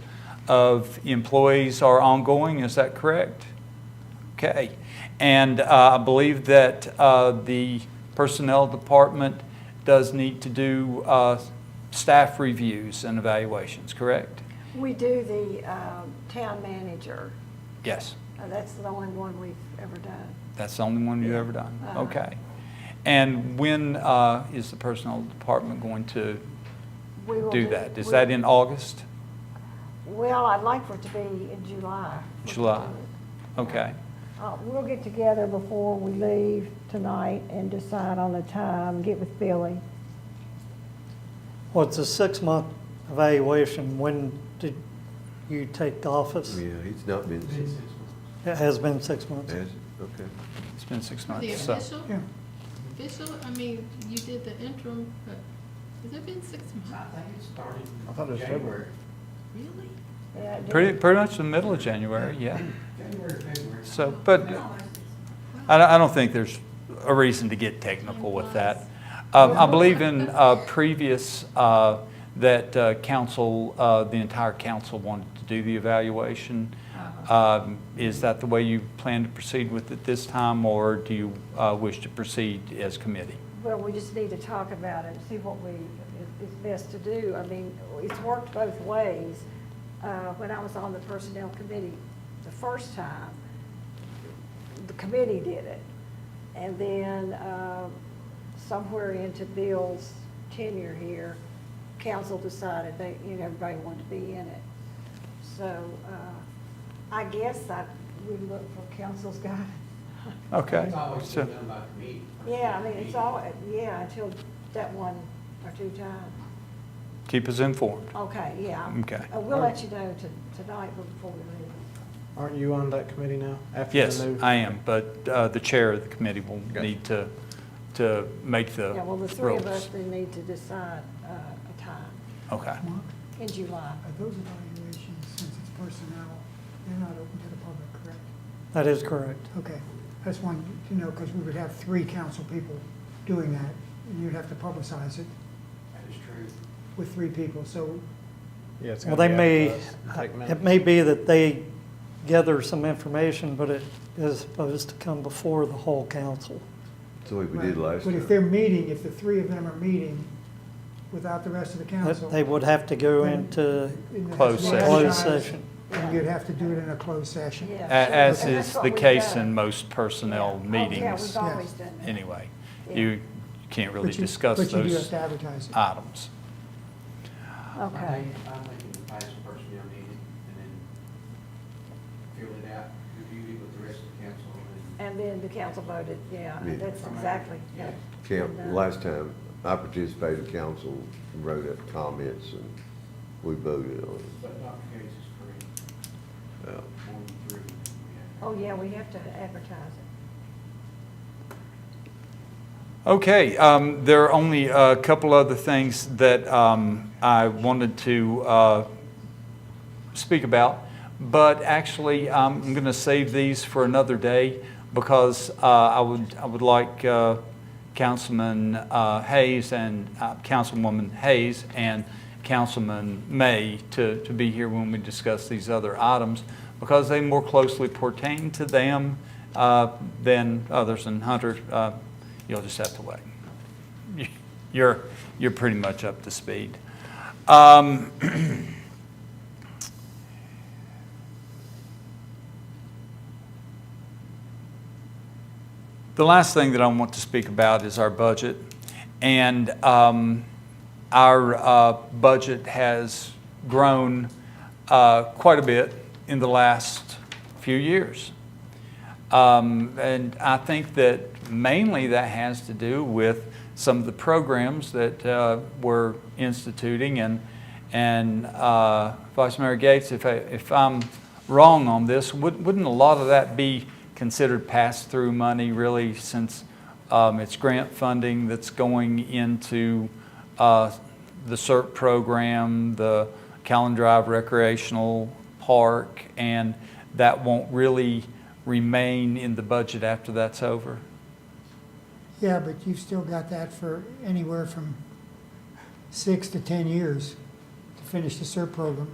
of employees are ongoing, is that correct? Okay. And uh, I believe that uh, the Personnel Department does need to do uh, staff reviews and evaluations, correct? We do the um, town manager. Yes. Uh, That's the only one we've ever done. That's the only one you've ever done? Uh-huh. Okay. And when uh, is the Personnel Department going to We will do that? Is we- that in August? Well, I'd like for it to be in July. if we can July. do it. Okay. Uh, We'll get together before we leave tonight and decide on a time, get with Billy. Well, it's a six-month evaluation. When did you take office? Yeah, it's not been, It has been six months. has, okay. It's been six The months, so. official, Yeah. official, I mean, you did the interim, but has it been six I months? think it started I thought in it was January. February. Really? Uh, Yeah, do- Pretty, pretty much the middle of January, yeah. January, February. So, but I, don't- I don't think there's a reason to get technical with that. Um, I believe in uh, previous, uh, that uh, council, uh, the entire council wanted to do the evaluation. Uh-huh. Um, Is that the way you plan to proceed with it this time, or do you uh, wish to proceed as committee? Well, we just need to talk about it and see what we, is is best to do. I mean, it's worked both ways. Uh, When I was on the Personnel Committee the first time, the committee did it. And then um, somewhere into Bill's tenure here, council decided they, you know, everybody wanted to be in it. So uh, I guess I would look for council's guidance. Okay. It's always so- been done by committee. Yeah, I mean, it's all, yeah, until that one or two times. Keep us informed. Okay, yeah. Okay. Uh, We'll let you know to- tonight before we leave. Aren't you on that committee now? after the Yes, new- I am, but uh, the chair of the committee will Gotcha. need to, to make the Yeah, well, the three of us, rules. we need to decide uh, a time Okay. Mark, in July. are those evaluations, since it's personnel, they're not open to the public, correct? That is correct. Okay, I just wanted to know, because we would have three council people doing that, and you'd have to publicize it That is true. with three people, so Yeah, it's Well, gonna they be may, uh, advertised and take it minutes. may be that they gather some information, but it is supposed to come before the whole council. That's the way we did Right. last But if time. they're meeting, if the three of them are meeting without the rest of the council. That They would have to go into then that's Closed session. closed advertised, session. And you'd have to do it in a closed session. Yeah. A- As And that's is what the we've case done. in most personnel Yeah. Oh, Yeah, meetings, we've always done that. anyway. Yeah. You can't really But you- discuss But you do have those to advertise it. items. I Okay. think, I think the vice personnel needed, and then fill it out, review it with the rest of the council, and. And then the council voted, yeah, Yeah. that's exactly. Yeah. Camp, last time I participated, council wrote up comments and we voted on it. But Dr. Gates is correct, Yeah. one, three. yeah. Oh, yeah, we have to advertise it. Okay, um, there are only a couple other things that um, I wanted to uh, speak about, but actually, I'm going to save these for another day because uh, I would, I would like uh, Councilman uh, Hayes and uh, Councilwoman Hayes and Councilman May to, to be here when we discuss these other items because they more closely pertain to them uh, than others. And Hunter, uh, you'll just have to wait. You're, you're pretty much up to speed. Um, The last thing that I want to speak about is our budget. And um, our uh, budget has grown uh, quite a bit in the last few years. Um, And I think that mainly that has to do with some of the programs that uh, we're instituting. And, and uh, Vice Mayor Gates, if, I, if I'm wrong on this, would- wouldn't a lot of that be considered pass-through money really since um, it's grant funding that's going into uh, the CERT program, the Callan Drive Recreational Park, and that won't really remain in the budget after that's over? Yeah, but you've still got that for anywhere from six to 10 years to finish the SERP program.